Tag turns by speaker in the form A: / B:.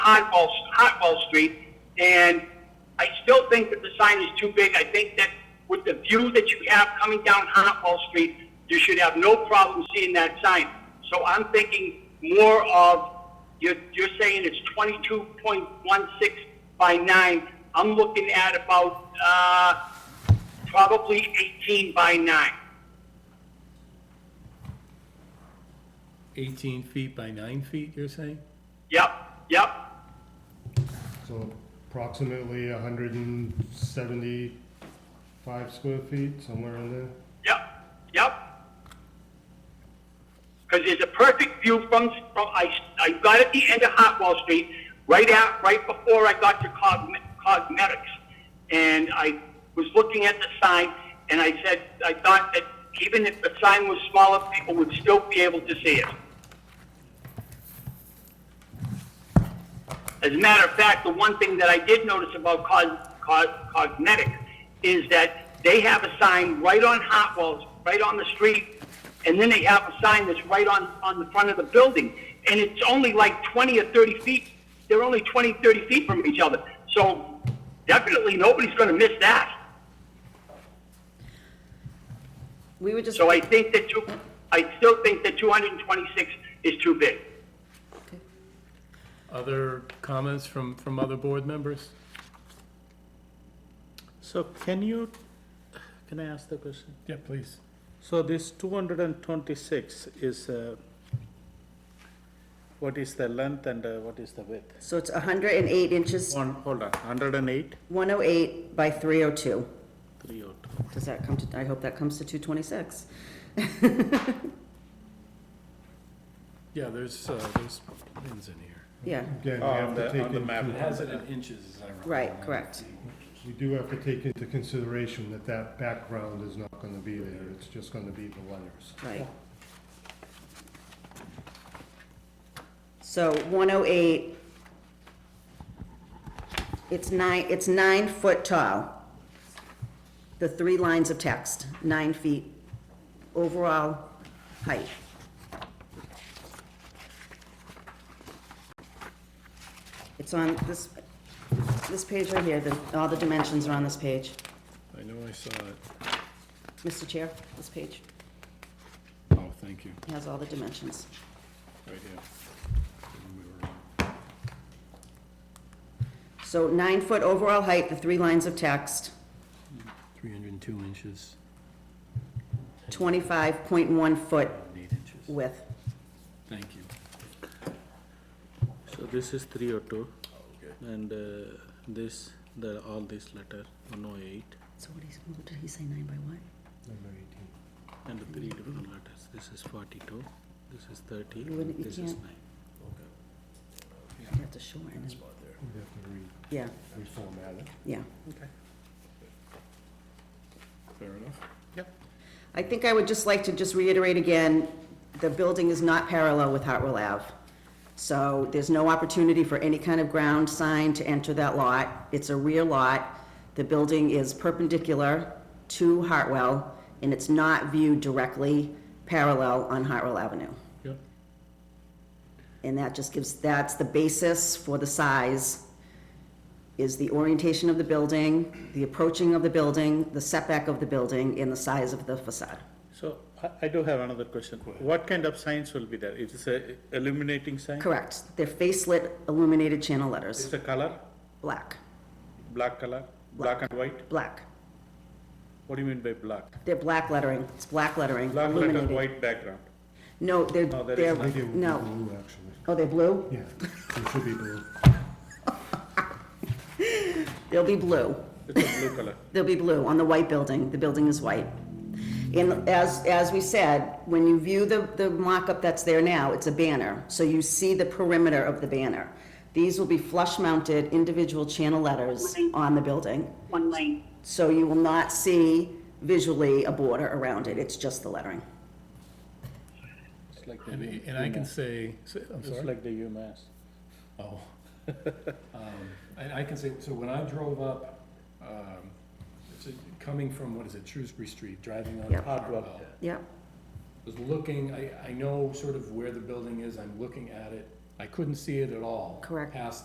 A: Hartwell, Hartwell Street, and I still think that the sign is too big. I think that with the view that you have coming down Hartwell Street, you should have no problem seeing that sign. So I'm thinking more of, you're, you're saying it's twenty-two point one six by nine. I'm looking at about, uh, probably eighteen by nine.
B: 18 feet by 9 feet, you're saying?
A: Yep, yep,
C: So approximately hundred and seventy-five square feet, somewhere in there.
A: yep, yep. because there's a perfect view from, from I, I got at the end of Hartwell Street, right out, right before I got to Cosme- Cosmetics. And I was looking at the sign, and I said, I thought that even if the sign was smaller, people would still be able to see it. As a matter of fact, the one thing that I did notice about Cos, Cos, Cosmetic is that they have a sign right on Hartwell's, right on the street, and then they have a sign that's right on, on the front of the building. And it's only like 20 or 30 feet, they're only 20, 30 feet from each other. So definitely nobody's going to miss that.
D: We would just,
A: So I think that two, I still think that 226 is too big.
B: Other comments from, from other board members?
E: So can you, can I ask the question?
B: Yeah, please.
E: So this two hundred and twenty-six is, uh, what is the length and uh, what is the width?
D: so it's 108 inches,
E: One, hold on, hundred and eight,
D: 108 by 302.
E: three oh two.
D: Does that come to, I hope that comes to 226.
B: Yeah, there's, uh, there's pins in here.
D: Yeah,
C: Again, we
E: On
C: have
E: the-
C: to take
E: on the map.
B: It
C: into,
B: has it in inches, as I recall.
D: right, correct.
C: we do have to take into consideration that that background is not gonna be there, it's just gonna be the letters.
D: Right. So 108, it's nine, it's nine foot tall. The three lines of text, nine feet overall height. It's on this, this page right here, the, all the dimensions are on this page.
B: I know I saw it.
D: Mr. Chair, this page
B: Oh, thank you,
D: has all the dimensions.
B: right here. We were wrong.
D: So nine-foot overall height, the three lines of text,
B: 302 inches,
D: 25.1-foot
B: 8 inches.
D: width.
B: Thank you.
E: So this is three oh two. And uh, this, the, all this letter, one oh eight,
D: So what he's, what did he say, nine by what?
C: Number eighteen.
E: and the three different letters. This is forty-two, this is thirty,
D: You wouldn't- you
E: this is
D: can't-
E: nine.
D: You have to shorten it.
C: We have to re-
D: Yeah,
C: reformat it.
D: yeah.
B: Fair enough.
D: I think I would just like to just reiterate again, the building is not parallel with Hartwell Ave. So there's no opportunity for any kind of ground sign to enter that lot. It's a rear lot. The building is perpendicular to Hartwell, and it's not viewed directly parallel on Hartwell Avenue.
B: Yep.
D: And that just gives, that's the basis for the size, is the orientation of the building, the approaching of the building, the setback of the building, and the size of the facade.
E: So I, I do have another question. What kind of signs will be there? It is a illuminating sign?
D: Correct. They're facelit illuminated channel letters,
E: Is the color,
D: black,
E: black color, black and white?
D: black.
E: What do you mean by black?
D: They're black lettering, it's black lettering,
E: Black letter,
D: illuminated.
E: white background.
D: No, they're,
E: No, that
D: they're,
E: is
C: I think it would be
D: no.
C: blue, actually.
D: Oh, they're blue?
C: Yeah, it should be blue.
D: They'll be blue.
E: It's a blue color.
D: They'll be blue on the white building. The building is white. And as, as we said, when you view the, the mock-up that's there now, it's a banner. So you see the perimeter of the banner. These will be flush-mounted individual channel letters on the building.
A: One lane.
D: So you will not see visually a border around it. It's just the lettering.
E: It's like the
B: And
E: U-
B: and I can
E: UMass.
B: say, say- I'm
E: It's
B: sorry?
E: like the UMass.
B: Oh. Um, And I can say, so when I drove up, um, it's, uh, coming from, what is it, Shrewsbury Street, driving on
D: Yeah.
B: Hartwell,
D: Yep.
B: was looking, I, I know sort of where the building is, I'm looking at it. I couldn't see it at all.
D: Correct.
B: Past